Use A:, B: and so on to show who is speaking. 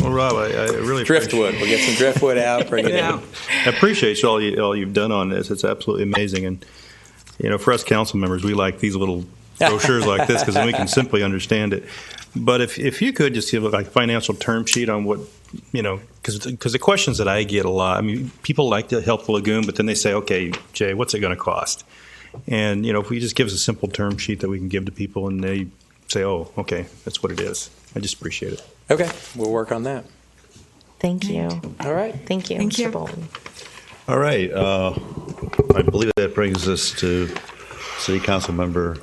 A: Well, Rob, I, I really appreciate-
B: Driftwood. We'll get some driftwood out, bring it in.
A: I appreciate all you all you've done on this. It's absolutely amazing, and you know, for us council members, we like these little brochures like this because then we can simply understand it. But if if you could just give like a financial term sheet on what you know, because the questions that I get a lot. I mean, people like to help the lagoon, but then they say, okay, Jay, what's it going to cost? And you know, if we just give us a simple term sheet that we can give to people, and they say, oh, okay, that's what it is. I just appreciate it.
B: Okay, we'll work on that.
C: Thank you.
B: All right.
C: Thank you,
D: Thank
C: Mr.
D: you.
C: Bolton.
E: All right, uh, I believe that brings us to City Council Member